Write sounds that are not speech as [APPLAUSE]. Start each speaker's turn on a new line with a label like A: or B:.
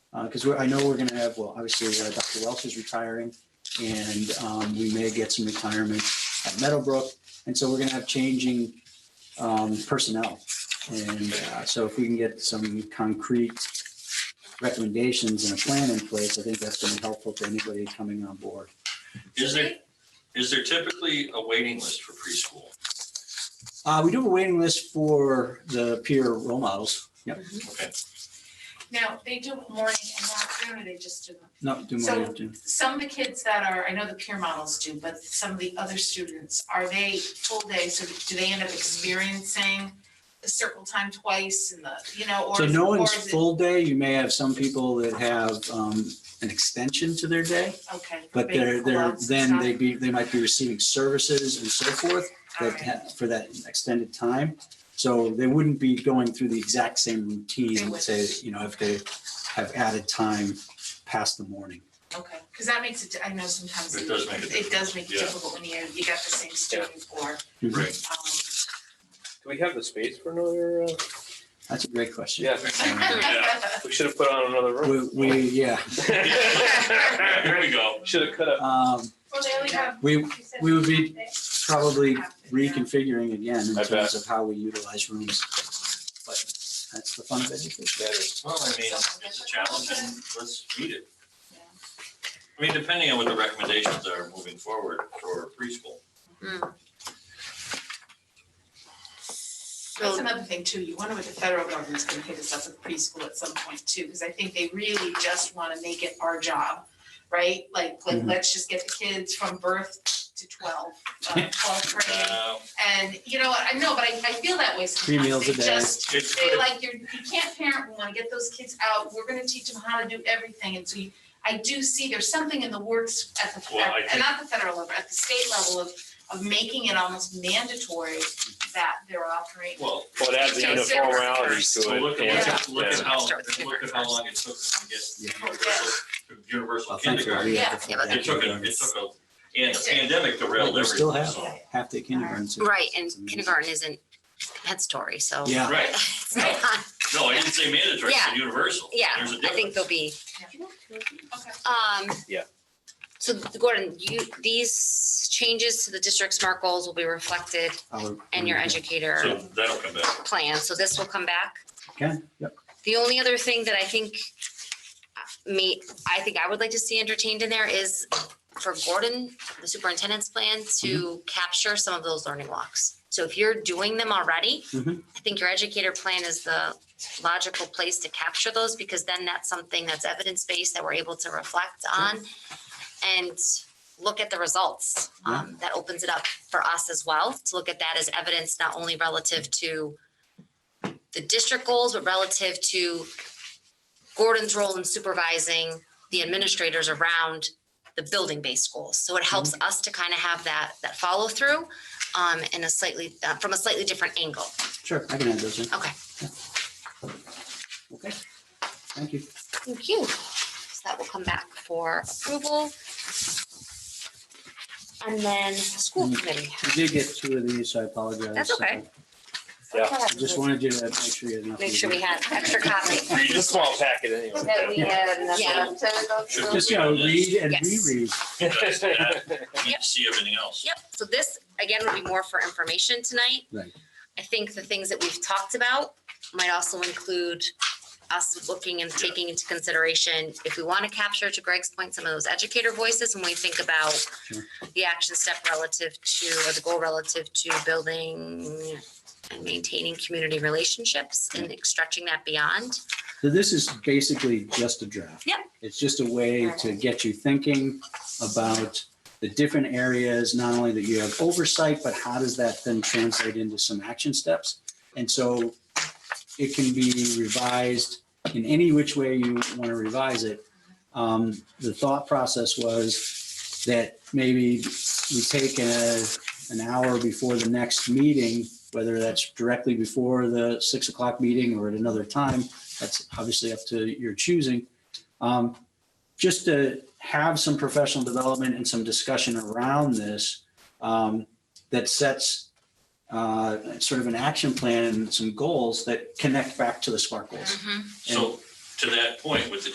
A: Because I know Uh, we're going to have, well, obviously, uh, Dr. Welch is retiring, and um, we may get some retirement at Meadowbrook. And so we're going to have changing um, personnel. And uh, so if we can get some concrete recommendations and a plan in place, I think that's going to be helpful to anybody coming on board.
B: Is there, is there typically a waiting list for preschool?
A: Uh, We do have a waiting list for the peer role models. Yep,
B: Okay,
C: Now, they do it morning and afternoon, or they just do them?
A: not do
C: So-
A: more than two.
C: Some of the kids that are, I know the peer models do, but some of the other students, are they full day? So do they end up experiencing the circle time twice and the, you know, or?
A: So
C: is-
A: no
C: or
A: one's
C: is it-
A: full day. You may have some people that have um, an extension to their day,
C: Okay.
A: but
C: big
A: they're, they're,
C: clubs and
A: then
C: stuff?
A: they be, they might be receiving services and so forth
C: All
A: that,
C: right.
A: ha- for that extended time. So they wouldn't be going through the exact same
C: They
A: routine,
C: would.
A: say, you know, if they have added time past the morning.
C: Okay, because that makes it, I know sometimes.
B: It does make it
C: It does make it
B: Yeah.
C: difficult when you, you got the same student um, or, [LAUGHS]
B: right.
D: Do we have the space for another, uh,
A: That's a great question.
D: Yeah.
C: um.
D: we should have put on another room.
A: We, we, yeah,
B: Here we go.
D: [LAUGHS] Should have cut up.
A: um,
E: Well, they only have.
A: we
E: you said
A: we would be
E: half day.
A: probably
E: Yeah.
A: reconfiguring again in
D: I
A: terms
D: bet.
A: of how we utilize rooms. But that's the fun of education.
B: Well, I mean, it's a challenge and let's meet it. I mean, depending on what the recommendations are moving forward for preschool.
C: That's another thing too, you wonder what the federal government's gonna hit us up with preschool at some point too, because I think they really just wanna make it our job, right? Like, like,
A: Mhm.
C: let's just get the kids from birth to twelve, uh, twelve grade,
B: Uh,
C: and, you know, I know, but I, I feel that way sometimes.
A: Three meals a
C: They
A: day.
C: just-
B: It's
C: they
B: good.
C: like, you're, you can't parent, we wanna get those kids out, we're gonna teach them how to do everything, and so you, I do see there's something in the works at the,
B: Well, I
C: and not the federal level, at the state level of, of making it almost mandatory that they're operating
B: Well,
D: Well, it adds the
C: Yeah, it's
D: uniformality
C: different.
D: to
B: so look
D: it.
B: at,
D: and-
B: look at
D: yeah.
B: how, look at how long it took them to get
A: Yeah.
B: universal, universal
A: Well, thankfully,
B: kindergarten.
A: we have the full
B: It took, a- it
A: kindergarten.
B: took, a- and the pandemic derailed
A: We still
B: everything,
A: have
B: so.
A: half day kindergarten. so
F: Right, and
A: it's amazing.
F: kindergarten isn't Pet Story, so.
A: Yeah,
B: Right,
F: It's not-
B: no, I didn't say mandatory, I said universal.
F: [LAUGHS] Yeah,
B: There's a
F: I think
B: difference.
F: there'll be,
C: Okay.
F: um.
D: Yeah.
F: So Gordon, you, these changes to the district SMART goals will be reflected
A: I'll-
F: in your
A: yeah.
F: educator
B: Mm-hmm. So that'll come back.
F: plan, so this will come back.
A: Okay, yep.
F: The only other thing that I think uh, me, I think I would like to see entertained in there is for Gordon, the superintendent's plan
A: Mm-hmm.
F: to capture some of those learning walks. So if you're doing them already,
A: Mhm.
F: I think your educator plan is the logical place to capture those because then that's something that's evidence-based that we're able to reflect on and look at the results. Um, that opens it up for us as well to look at that as evidence, not only relative to the district goals, but relative to Gordon's role in supervising the administrators around the building-based goals. So it helps us to kind of have that, that follow-through um, in a slightly, uh, from a slightly different angle.
A: Sure, I can add those in.
F: Okay.
A: Okay. Thank you.
F: Thank you. So that will come back for approval. And then school
A: Mm.
F: committee.
A: We did get two of these, so I apologize.
F: That's okay.
D: Yeah.
A: I Just wanted you to make sure you had enough.
F: Make sure we had extra copy.
D: It's a small packet
E: That we
D: anyway.
E: had enough
F: Yeah.
E: time to go
B: Sure.
E: through.
A: Just, you know, read and
F: Yes.
A: reread.
D: [LAUGHS]
B: You see everything else.
F: Yep, so this, again, would be more for information tonight.
A: Right.
F: I think the things that we've talked about might also include us looking and
B: Yeah.
F: taking into consideration, if we want to capture, to Greg's point, some of those educator voices, when we think about
A: Sure.
F: the action step relative to, or the goal relative to building and maintaining community relationships and stretching that beyond.
A: So this is basically just a draft.
F: Yep.
A: It's just a way to get you thinking about the different areas, not only that you have oversight, but how does that then translate into some action steps? And so it can be revised in any which way you want to revise it. Um, The thought process was that maybe we take a, an hour before the next meeting, whether that's directly before the six o'clock meeting or at another time, that's obviously up to your choosing. Um, Just to have some professional development and some discussion around this um, that sets uh, sort of an action plan and some goals that connect back to the SMART goals.
B: So to that point, with the